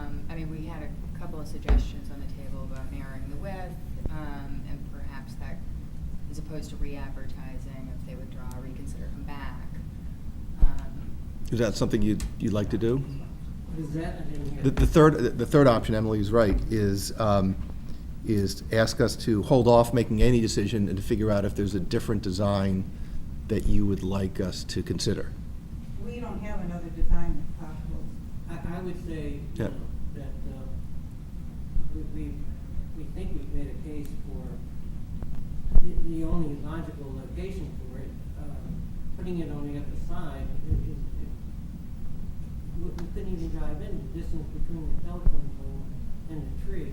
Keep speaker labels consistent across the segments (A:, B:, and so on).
A: Um, couple suggestions on the table about narrowing the width, um, and perhaps that, as opposed to re-advertising, if they withdraw, reconsider, come back. um,
B: Is that something you'd, you'd like to do?
C: What is that? I didn't hear.
D: The, the third, the third option, Emily is right, is, um, is to ask us to hold off making any decision and to figure out if there's a different design that you would like us to consider.
E: We don't have another design that's possible.
C: I, I would say, you
B: Yeah.
C: know, that, uh, we, we, we think we've made a case for the, the only logical location for it, uh, putting it on the other side is, is, it- we, we couldn't even drive in, the distance between the telephone pole and the tree.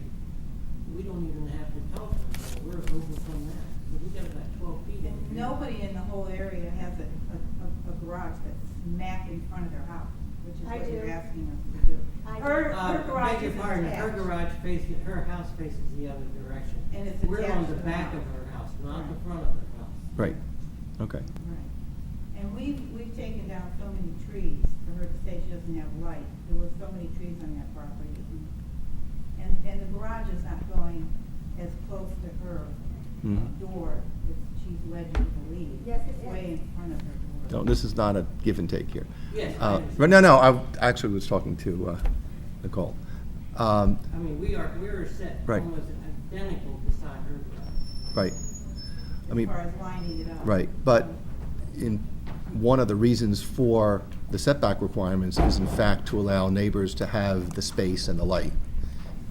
C: We don't even have the telephone pole, we're over from that, so we got about twelve feet.
E: And Nobody in the whole area has a, a, a- a garage that's smack in front of their house, which is
F: I
E: what you're
F: do.
E: asking us to do.
F: I do.
E: Her,
C: Uh,
E: her garage
C: beg your
E: is
C: pardon, Her
E: attached.
C: garage faces, her house faces the other direction.
E: And it's
C: We're on
E: attached
C: the
E: to the
C: back of
E: house.
C: her house, not the
E: Right.
C: front of her house.
B: Right, okay.
E: Right. And we've, we've taken down so many trees for her to say she doesn't have light. There were so many trees on that property. And, and the garage is not going as close to her
B: Mhm.
E: door as she's led you to believe.
F: Yes, it
E: It's Way
F: is.
E: in front of her door.
B: No, this is not a give and take here.
C: Yes, I
B: Uh,
C: understand.
B: But no, no, I actually was talking to uh, Nicole. Um,
C: I mean, we are, we're set
B: Right.
C: almost identical beside her garage.
B: Right. I mean,
E: As far as lining it up.
B: right, but in, one of the reasons for the setback requirements is in fact to allow neighbors to have the space and the light.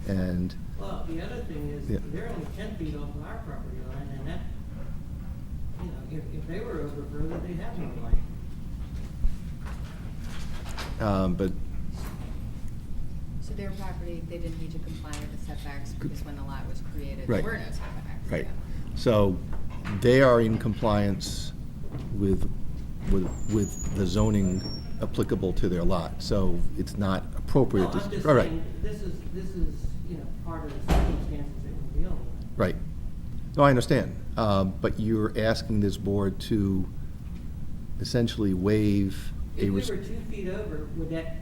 B: And,
C: Well, the other thing
B: Yeah.
C: is, they're only ten feet off of our property line, and that, you know, if, if they were over further, they'd have no light.
B: um, but,
A: So their property, they didn't need to comply with the setbacks because when the lot was created, there
B: Right.
A: were no setbacks.
B: right.
A: yeah.
B: So they are in compliance with, with, with the zoning applicable to their lot. So it's not
C: No,
B: appropriate
C: I'm
B: to.
C: just
B: all right,
C: saying, this is, this is, you know, part of the circumstances that we're dealing with.
B: Right. No, I understand. Um, But you're asking this board to essentially waive
C: If
B: a.
C: we were
B: res-
C: two feet over, would that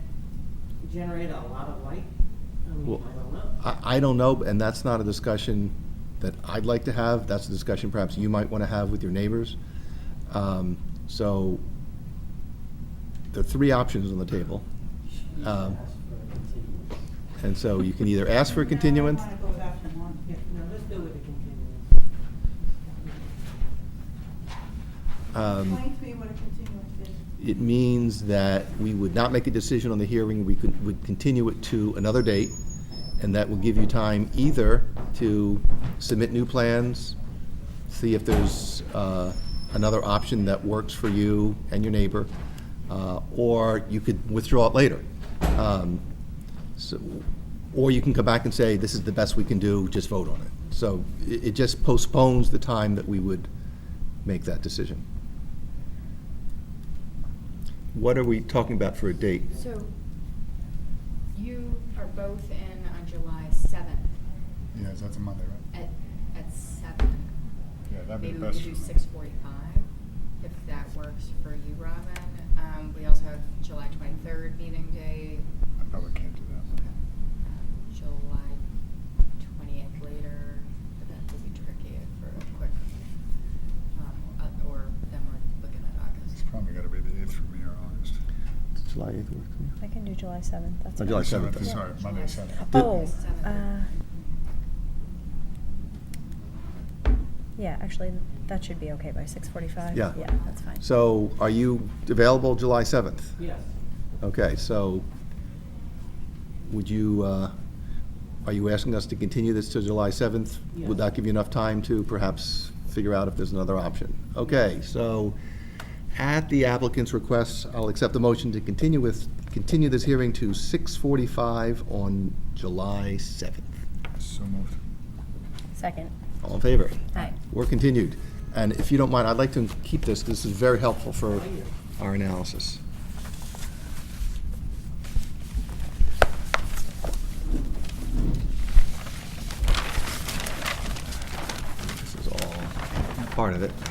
C: generate a lot of light? I mean,
B: Well,
C: I don't know.
B: I, I don't know, and that's not a discussion that I'd like to have. That's a discussion perhaps you might want to have with your neighbors. Um, So there are three options on the table. Um, And so you can either ask for a
E: No, I
B: continuance.
E: wanna go with option one.
C: Yeah, no, let's go with the continuance.
B: um,
E: Explain to me what a continuance is.
B: It means that we would not make a decision on the hearing, we could, would continue it to another date, and that will give you time either to submit new plans, see if there's uh, another option that works for you and your neighbor, uh, or you could withdraw it later. Um, so- Or you can come back and say, this is the best we can do, just vote on it. So it it just postpones the time that we would make that decision. What are we talking about for a date?
A: So you are both in on July seventh
G: Yeah, that's a Monday, right?
A: at, at seven.
G: Yeah, that'd be
A: Maybe
G: the
A: we
G: best.
A: could do six forty-five, if that works for you, Robin. Um, we also have July twenty-third meeting day,
G: I probably can't do that.
A: um, July twentieth later, but that would be tricky for a quick, um, uh, or then we're looking at
G: It's
A: August.
G: probably gotta be the eighth for me or August.
B: July 8th work
F: I can do July seventh, that's.
B: Oh,
F: fine.
B: July
G: Sorry,
B: 7th.
G: Sorry, Monday, seventh.
B: The-
F: Oh,
A: Seventh.
F: uh, yeah, actually, that should be okay by six forty-five.
B: Yeah.
F: Yeah, that's fine.
B: So are you available July 7th?
C: Yes,
B: Okay, so would you, uh, are you asking us to continue this to July 7th?
C: Yes.
B: Would that give you enough time to perhaps figure out if there's another option? Okay, so at the applicant's request, I'll accept the motion to continue with, continue this hearing to 6:45 on July 7th.
G: So moved.
F: Second,
B: All in favor?
F: aye.
B: We're continued. And if you don't mind, I'd like to keep this, because this is very helpful for our analysis. This is all part of it.